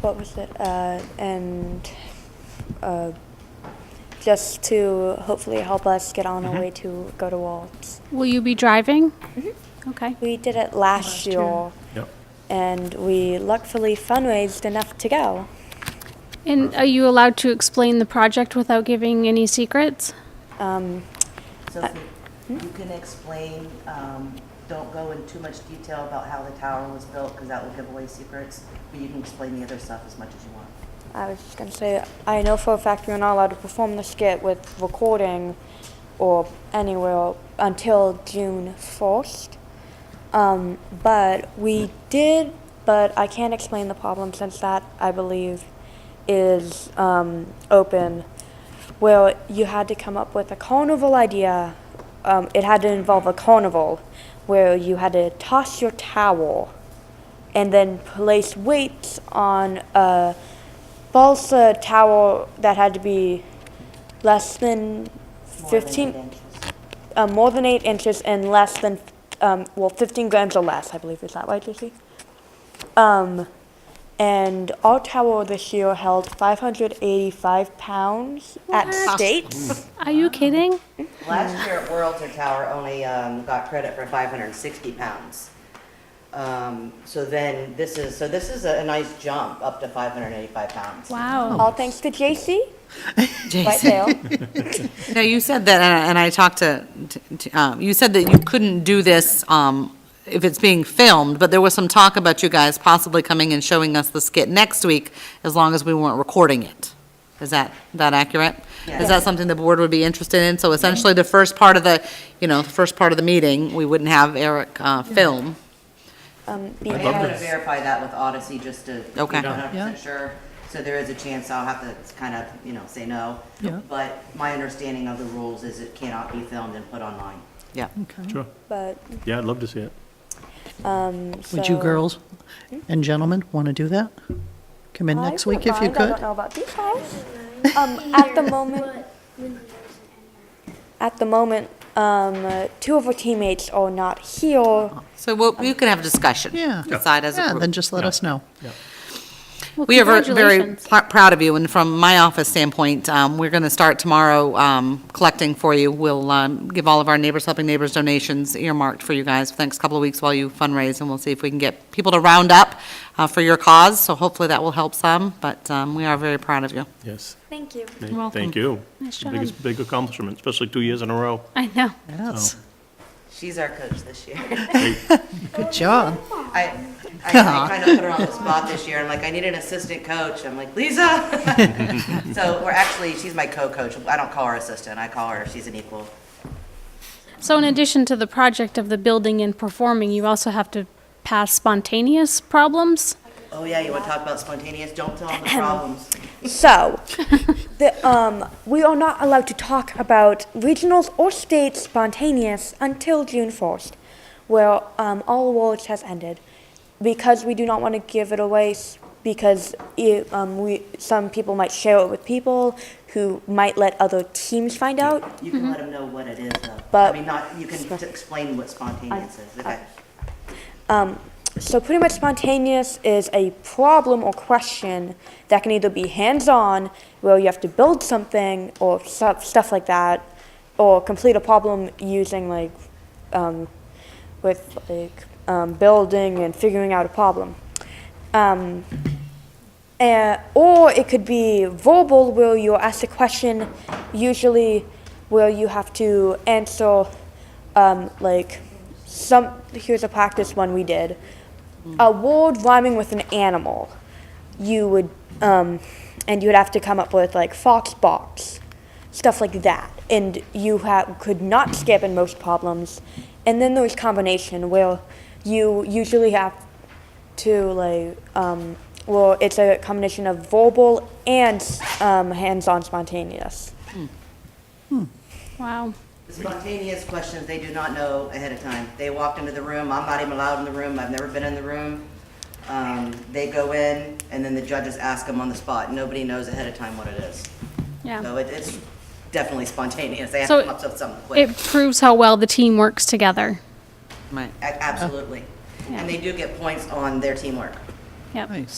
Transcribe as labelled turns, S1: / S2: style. S1: what was it? Uh, and uh, just to hopefully help us get on our way to go to Waltz.
S2: Will you be driving? Okay.
S1: We did it last,
S2: Last
S1: year,
S2: year.
S3: Yep.
S1: and we luckily fundraised enough to go.
S2: And are you allowed to explain the project without giving any secrets?
S1: Um,
S4: So you can explain, um, don't go in too much detail about how the tower was built, because that will give away secrets, but you can explain the other stuff as much as you want.
S1: I was just going to say, I know for a fact we were not allowed to perform the skit with recording or anywhere until June 1st. Um, but we did, but I can't explain the problem since that, I believe, is um, open. Where you had to come up with a carnival idea. Um, it had to involve a carnival where you had to toss your towel and then place weights on a balsa towel that had to be less than
S4: More than
S1: 15
S4: eight inches.
S1: uh, more than eight inches and less than, um, well, 15 grams or less, I believe. Is that right, Lucy? Um, and our tower this year held 585 pounds at states.
S2: Are you kidding?
S4: Last year at Whirlter Tower only um, got credit for 560 pounds. Um, So then, this is, so this is a a nice jump up to 585 pounds.
S2: Wow.
S1: All thanks to JC. right there.
S5: No, you said that, and I- and I talked to, to- to, um, you said that you couldn't do this um, if it's being filmed, but there was some talk about you guys possibly coming and showing us the skit next week, as long as we weren't recording it. Is that, that accurate? Is that something the board would be interested in? So essentially, the first part of the, you know, the first part of the meeting, we wouldn't have Eric uh, film.
S1: Um,
S4: I am going to
S1: because
S4: verify that with Odyssey, just to be
S5: Okay.
S4: 100% sure. So there is a chance I'll have to kind of, you know, say no. But my understanding of the rules is it cannot be filmed and put online.
S5: Yeah.
S3: Sure.
S1: but,
S3: Yeah, I'd love to see it.
S1: um,
S6: Would you
S1: so-
S6: girls and gentlemen want to do that? Come in
S1: I
S6: next week
S1: wouldn't
S6: if you
S1: mind. I don't
S6: could?
S1: know about these guys. Um, at the moment, at the moment, um, uh, two of our teammates are not here.
S5: So we'll, you can have a discussion.
S6: Yeah.
S5: Decide as a
S6: Yeah,
S5: group.
S6: then just let us know.
S2: Well,
S5: We are ver- very
S2: congratulations.
S5: pr- proud of you, and from my office standpoint, um, we're going to start tomorrow um, collecting for you. We'll um, give all of our Neighbors Helping Neighbors donations earmarked for you guys for the next couple of weeks while you fundraise, and we'll see if we can get people to round up uh, for your cause, so hopefully that will help some, but um, we are very proud of you.
S3: Yes.
S1: Thank you.
S3: Thank-
S5: You're welcome.
S3: Thank you.
S2: Nice job.
S3: Biggest, big accomplishment, especially two years in a row.
S2: I know.
S5: Oh.
S6: Yes,
S4: She's our coach this year.
S6: good job.
S4: I, I kind of put her on the spot this year. I'm like, I need an assistant coach. I'm like, Lisa. So we're actually, she's my co-coach. I don't call her assistant. I call her, she's an equal.
S2: So in addition to the project of the building and performing, you also have to pass spontaneous problems?
S4: Oh, yeah, you want to talk about spontaneous? Don't tell them the problems.
S1: So, the, um, we are not allowed to talk about regionals or state spontaneous until June 1st, where um, all awards has ended, because we do not want to give it away. s- Because it, um, we some people might share it with people who might let other teams find out.
S4: You can let them know what it is, though.
S1: But-
S4: I mean, not, you can t- explain what spontaneous is. Okay.
S1: Um, so pretty much spontaneous is a problem or question that can either be hands-on, where you have to build something or stuff, stuff like that, or complete a problem using like, um, with like um, building and figuring out a problem. Um, uh, or it could be verbal, where you're asked a question, usually where you have to answer, um, like, some. Here's a practice one we did Mm-hmm. a word rhyming with an animal. You would, um, and you would have to come up with, like, fox box, stuff like that. And you ha- could not skip in most problems. And then there's combination, where you usually have to like um, well it's a combination of verbal and um, hands-on spontaneous
S2: Wow.
S4: The Spontaneous questions, they do not know ahead of time. They walked into the room, I'm not even allowed in the room, I've never been in the room. Um, They go in, and then the judges ask them on the spot. Nobody knows ahead of time what it is. So
S2: Yeah.
S4: it- it's definitely spontaneous. They have
S2: So
S4: to come up with something quick.
S2: It proves how well the team works together.
S5: Right.
S4: A- Absolutely.
S2: Yeah.
S4: And they do get points on their teamwork.
S2: Yep.
S6: Nice.